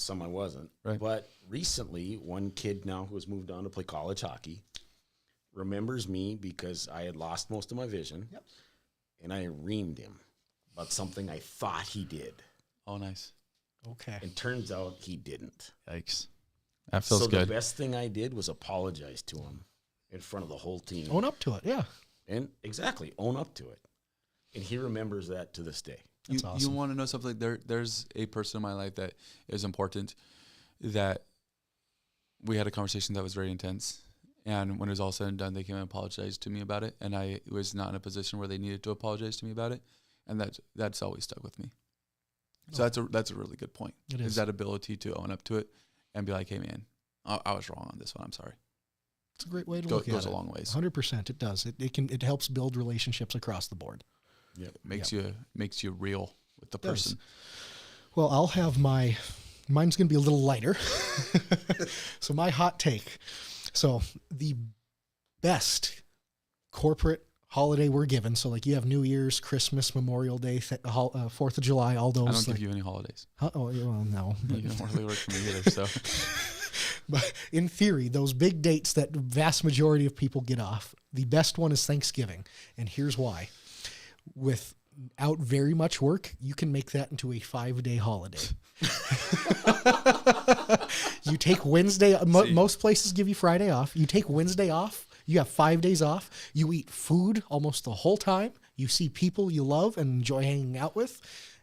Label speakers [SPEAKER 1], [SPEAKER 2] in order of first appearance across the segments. [SPEAKER 1] some I wasn't.
[SPEAKER 2] Right.
[SPEAKER 1] But recently, one kid now who has moved on to play college hockey remembers me because I had lost most of my vision,
[SPEAKER 3] Yep.
[SPEAKER 1] and I reamed him about something I thought he did,
[SPEAKER 2] Oh, nice.
[SPEAKER 3] Okay.
[SPEAKER 1] and turns out he didn't.
[SPEAKER 2] Yikes. That feels
[SPEAKER 1] so
[SPEAKER 2] good.
[SPEAKER 1] the best thing I did was apologize to him in front of the whole team,
[SPEAKER 3] Own up to it. Yeah.
[SPEAKER 1] and exactly own up to it. And he remembers that to this day.
[SPEAKER 2] you,
[SPEAKER 3] That's
[SPEAKER 2] you
[SPEAKER 3] awesome.
[SPEAKER 2] want to know something? There, there's a person in my life that is important. That we had a conversation that was very intense, and when it was all said and done, they came and apologized to me about it, and I was not in a position where they needed to apologize to me about it, and that that's always stuck with me. So
[SPEAKER 3] Oh.
[SPEAKER 2] that's a that's a really good point.
[SPEAKER 3] It
[SPEAKER 2] is
[SPEAKER 3] is.
[SPEAKER 2] that ability to own up to it and be like, hey man, I, I was wrong on this one. I'm sorry.
[SPEAKER 3] It's a great way to
[SPEAKER 2] Go,
[SPEAKER 3] look at
[SPEAKER 2] goes
[SPEAKER 3] it.
[SPEAKER 2] a long ways.
[SPEAKER 3] Hundred percent, it does. It, it can it helps build relationships across the board.
[SPEAKER 2] Makes you makes you real with the
[SPEAKER 3] does.
[SPEAKER 2] person.
[SPEAKER 3] Well, I'll have my mine's going to be a little lighter. so my hot take. So the best corporate holiday we're given. So like you have New Year's, Christmas, Memorial Day, th- hol- uh, Fourth of July, all
[SPEAKER 2] I don't
[SPEAKER 3] those.
[SPEAKER 2] give
[SPEAKER 3] like-
[SPEAKER 2] you any holidays.
[SPEAKER 3] Huh? oh yeah, well, no.
[SPEAKER 2] You don't really work for me either. So
[SPEAKER 3] but in theory, those big dates that vast majority of people get off, the best one is Thanksgiving, and here's why. Without very much work, you can make that into a five-day holiday. you take Wednesday. Mo- most places give you Friday off. You take Wednesday off. You have five days off. You eat food almost the whole time. You see people you love and enjoy hanging out with,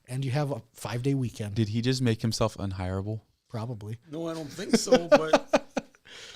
[SPEAKER 3] and you have a five-day weekend.
[SPEAKER 2] Did he just make himself unhireable?
[SPEAKER 3] Probably.
[SPEAKER 1] No, I don't think so, but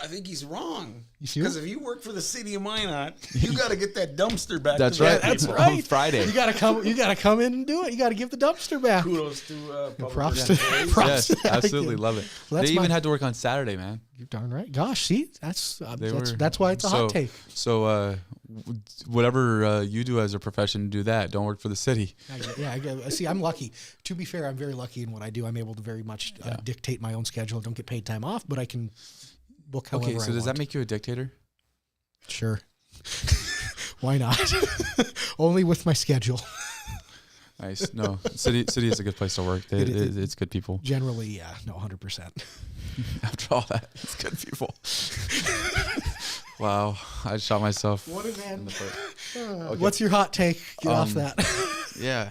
[SPEAKER 1] I think he's wrong.
[SPEAKER 3] You see
[SPEAKER 1] Because
[SPEAKER 3] what-
[SPEAKER 1] if you work for the city of Minot, you got to get that dumpster back.
[SPEAKER 2] That's
[SPEAKER 1] to
[SPEAKER 2] right.
[SPEAKER 1] the
[SPEAKER 2] That's
[SPEAKER 1] people.
[SPEAKER 2] right. on Friday.
[SPEAKER 3] You gotta come. You gotta come in and do it. You gotta give the dumpster back.
[SPEAKER 1] Kudos to uh, public
[SPEAKER 3] Props to,
[SPEAKER 1] relations.
[SPEAKER 3] props
[SPEAKER 2] Yes,
[SPEAKER 3] to that
[SPEAKER 2] absolutely
[SPEAKER 3] kid.
[SPEAKER 2] love it.
[SPEAKER 3] Well, that's
[SPEAKER 2] they even
[SPEAKER 3] my-
[SPEAKER 2] had to work on Saturday, man.
[SPEAKER 3] You're darn right. Gosh, see, that's uh,
[SPEAKER 2] They
[SPEAKER 3] that's,
[SPEAKER 2] were-
[SPEAKER 3] that's why it's a
[SPEAKER 2] so,
[SPEAKER 3] hot take.
[SPEAKER 2] So, uh, w- whatever uh, you do as a profession, do that. Don't work for the city.
[SPEAKER 3] I get- yeah, I get- uh, see, I'm lucky. To be fair, I'm very lucky in what I do. I'm able to very much uh, dictate my own schedule. Don't get paid time off, but I can book however.
[SPEAKER 2] Okay, so
[SPEAKER 3] I
[SPEAKER 2] does
[SPEAKER 3] want.
[SPEAKER 2] that make you a dictator?
[SPEAKER 3] sure? why not? Only with my schedule.
[SPEAKER 2] Nice. No, city city is a good place to work. They,
[SPEAKER 3] It- it-
[SPEAKER 2] it- it's good people.
[SPEAKER 3] Generally, yeah, no, hundred percent.
[SPEAKER 2] After all that, it's good people. wow, I shot myself.
[SPEAKER 3] What an end.
[SPEAKER 2] in the foot.
[SPEAKER 3] What's your hot take? Get off
[SPEAKER 2] Um,
[SPEAKER 3] that.
[SPEAKER 2] Yeah.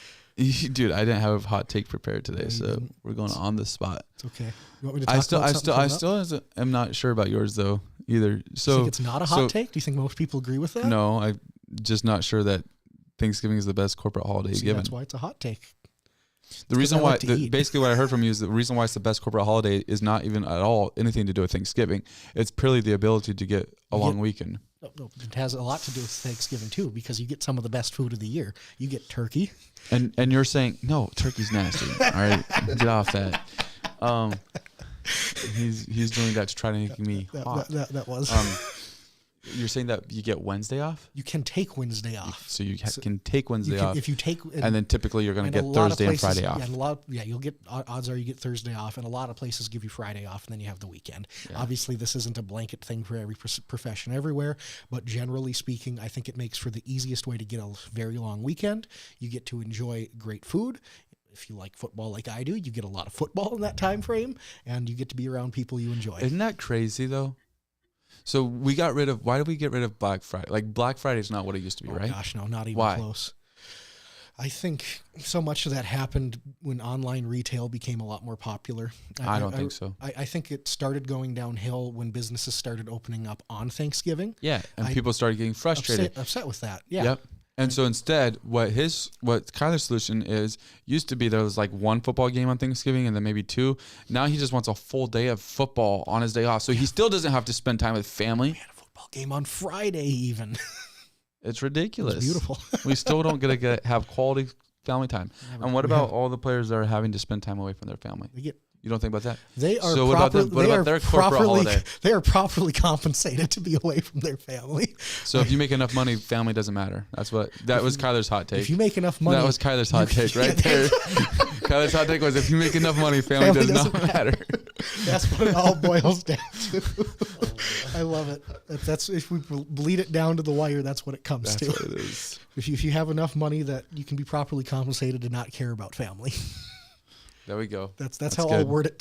[SPEAKER 2] Dude, I didn't have a hot take prepared today, so we're going on the spot.
[SPEAKER 3] it's okay. You want me to talk
[SPEAKER 2] I still,
[SPEAKER 3] about
[SPEAKER 2] I
[SPEAKER 3] something
[SPEAKER 2] still,
[SPEAKER 3] coming
[SPEAKER 2] I
[SPEAKER 3] up?
[SPEAKER 2] still isn't- am not sure about yours though either.
[SPEAKER 3] Do you
[SPEAKER 2] So
[SPEAKER 3] think it's not a hot
[SPEAKER 2] so-
[SPEAKER 3] take? Do you think most people agree with that?
[SPEAKER 2] no, I'm just not sure that Thanksgiving is the best corporate holiday
[SPEAKER 3] See,
[SPEAKER 2] given.
[SPEAKER 3] that's why it's a hot take.
[SPEAKER 2] the reason
[SPEAKER 3] I
[SPEAKER 2] why,
[SPEAKER 3] like to
[SPEAKER 2] the,
[SPEAKER 3] eat.
[SPEAKER 2] basically, what I heard from you is the reason why it's the best corporate holiday is not even at all anything to do with Thanksgiving. It's purely the ability to get a long weekend.
[SPEAKER 3] No, no, It has a lot to do with Thanksgiving too, because you get some of the best food of the year. You get turkey.
[SPEAKER 2] And and you're saying no, turkey's nasty. all right, get off that. Um, he's he's doing that to try to make me
[SPEAKER 3] That,
[SPEAKER 2] hot.
[SPEAKER 3] that, that, that was.
[SPEAKER 2] Um, you're saying that you get Wednesday off,
[SPEAKER 3] you can take Wednesday off.
[SPEAKER 2] so you ha- can take Wednesday
[SPEAKER 3] You can,
[SPEAKER 2] off.
[SPEAKER 3] if you take
[SPEAKER 2] and then typically you're going
[SPEAKER 3] and
[SPEAKER 2] to
[SPEAKER 3] a
[SPEAKER 2] get
[SPEAKER 3] lot of
[SPEAKER 2] Thursday and
[SPEAKER 3] places-
[SPEAKER 2] Friday off.
[SPEAKER 3] Yeah, and a lot. yeah, you'll get o- odds are you get Thursday off, and a lot of places give you Friday off, and then you have the weekend. Obviously, this isn't a blanket thing for every pros- profession everywhere, but generally speaking, I think it makes for the easiest way to get a l- very long weekend. You get to enjoy great food. If you like football like I do, you get a lot of football in that time frame, and you get to be around people you enjoy.
[SPEAKER 2] Isn't that crazy though? So we got rid of. Why did we get rid of Black Friday? Like Black Friday is not what it used to be,
[SPEAKER 3] Oh,
[SPEAKER 2] right?
[SPEAKER 3] Gosh, no, not even
[SPEAKER 2] Why?
[SPEAKER 3] close. I think so much of that happened when online retail became a lot more popular.
[SPEAKER 2] I don't think so.
[SPEAKER 3] I, I think it started going downhill when businesses started opening up on Thanksgiving.
[SPEAKER 2] Yeah, and
[SPEAKER 3] I-
[SPEAKER 2] people started getting frustrated.
[SPEAKER 3] Upset, upset with that. Yeah.
[SPEAKER 2] Yep. And so instead, what his what Kyler's solution is used to be there was like one football game on Thanksgiving and then maybe two. Now he just wants a full day of football on his day off, so he still doesn't have to spend time with family.
[SPEAKER 3] Had a football game on Friday, even.
[SPEAKER 2] It's ridiculous.
[SPEAKER 3] Beautiful.
[SPEAKER 2] we still don't get to get, have quality family time. and what about all the players that are having to spend time away from their family?
[SPEAKER 3] They get.
[SPEAKER 2] You don't think about that?
[SPEAKER 3] They are
[SPEAKER 2] So what about
[SPEAKER 3] proper-
[SPEAKER 2] the- what
[SPEAKER 3] they
[SPEAKER 2] about
[SPEAKER 3] are
[SPEAKER 2] their corporate
[SPEAKER 3] properly,
[SPEAKER 2] holiday?
[SPEAKER 3] They are properly compensated to be away from their family.
[SPEAKER 2] So if you make enough money, family doesn't matter. That's what that was Kyler's hot take.
[SPEAKER 3] If you make enough money,
[SPEAKER 2] that was Kyler's hot take right there. Kyler's hot take was if you make enough money, family,
[SPEAKER 3] Family
[SPEAKER 2] does not
[SPEAKER 3] doesn't
[SPEAKER 2] matter.
[SPEAKER 3] That's what it all boils down to. I love it. If that's if we bleed it down to the wire, that's what it comes
[SPEAKER 2] That's
[SPEAKER 3] to.
[SPEAKER 2] what it is.
[SPEAKER 3] If you, if you have enough money that you can be properly compensated and not care about family,
[SPEAKER 2] There we go.
[SPEAKER 3] that's
[SPEAKER 2] That's
[SPEAKER 3] that's, how I'll
[SPEAKER 2] good.
[SPEAKER 3] word it